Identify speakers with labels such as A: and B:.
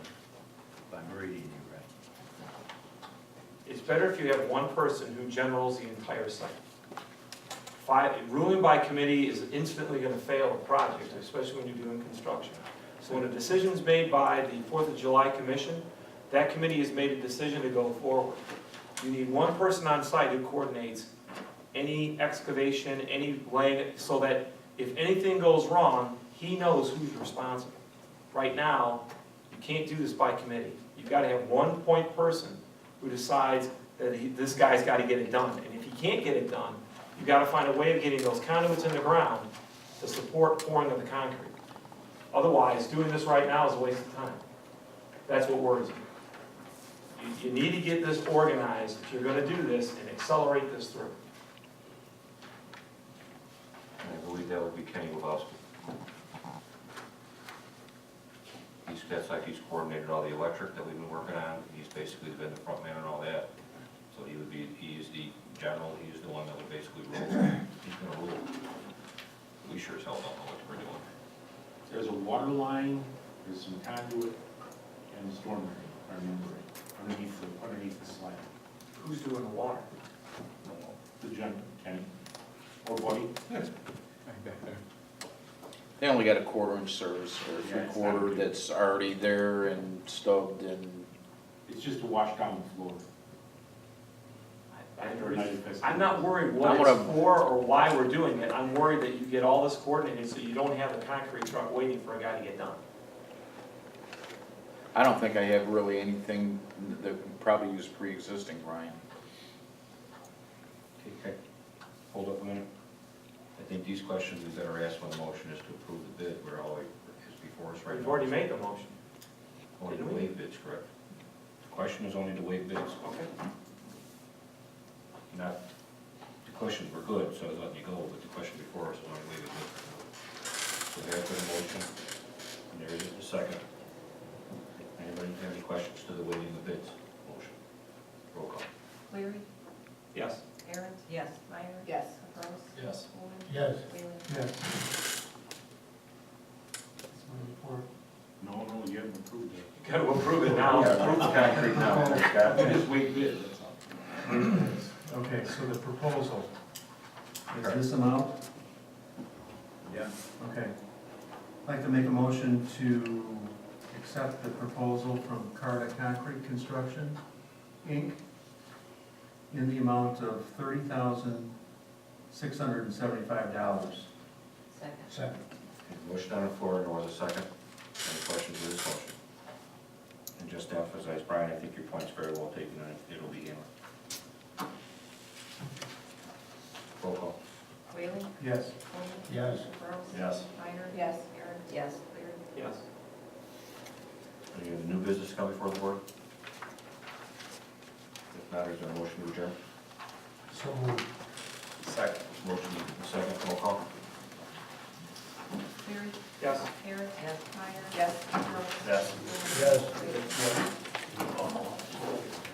A: I'm reading you right.
B: It's better if you have one person who generals the entire site. Five, ruling by committee is instantly gonna fail a project, especially when you're doing construction. So when a decision's made by the Fourth of July Commission, that committee has made a decision to go forward. You need one person on site who coordinates any excavation, any laying, so that if anything goes wrong, he knows who's responsible. Right now, you can't do this by committee. You've gotta have one point person who decides that he, this guy's gotta get it done. And if he can't get it done, you gotta find a way of getting those conduits in the ground to support pouring of the concrete. Otherwise, doing this right now is a waste of time. That's what worries me. You, you need to get this organized if you're gonna do this and accelerate this through.
C: I believe that would be Kenny Lebowski. He's, that's like he's coordinated all the electric that we've been working on, he's basically been the front man and all that. So he would be, he is the general, he is the one that would basically rule, he's gonna rule. We sure as hell don't know what we're doing.
D: There's a water line, there's some conduit, and a storm drain, I remember it, underneath the, underneath the slab.
B: Who's doing the water?
D: The gentleman, Kenny, or Buddy,
E: They only got a quarter inch service or
D: Yeah,
E: three
D: it's not
E: quarter
D: big.
E: that's already there and stubbed and
D: it's just to wash down the floor.
B: I- I-
D: Or night fest.
B: I'm not worried
E: Not
B: what
E: what
B: it's
E: I'm-
B: for or why we're doing it, I'm worried that you get all this coordinated so you don't have a concrete truck waiting for a guy to get done.
E: I don't think I have really anything that would probably use pre-existing, Ryan.
C: Okay, hold up a minute. I think these questions we better ask when the motion is to approve the bid, we're all, is before us right now.
B: We've already made the motion.
C: Only to waive bids, correct? The question is only to waive bids.
B: Okay.
C: not, the questions were good, so I was letting you go, but the question before us is only leaving it. So there put a motion, and there is a second. Anybody have any questions to the waiting of bids motion? Roll call.
F: Cleary,
B: Yes.
F: Aaron's? Yes. Meyer? Yes. Capros?
C: Yes.
F: Coleman?
G: Yes.
F: Whalen?
G: Yes. That's my report.
D: No, no, you haven't approved it.
B: You gotta approve it now.
C: approve the concrete now, Scott. Just wait bids, that's all.
G: Okay, so the proposal, is
C: Correct.
G: this amount?
D: Yeah.
G: Okay. I'd like to make a motion to accept the proposal from Carta Concrete Construction, Inc., in the amount of thirty thousand, six hundred and seventy-five dollars.
F: Second.
G: Second.
C: Motion on the floor, and was a second. Any questions to this motion? And just to emphasize, Brian, I think your point's very well taken, and it'll be handled. Roll call.
F: Whalen?
G: Yes.
F: Coleman?
G: Yes.
F: Capros?
C: Yes.
F: Meyer? Yes. Aaron? Yes. Cleary?
B: Yes.
C: Any other new business coming before the board? If not, is there a motion to adjourn?
G: So moved.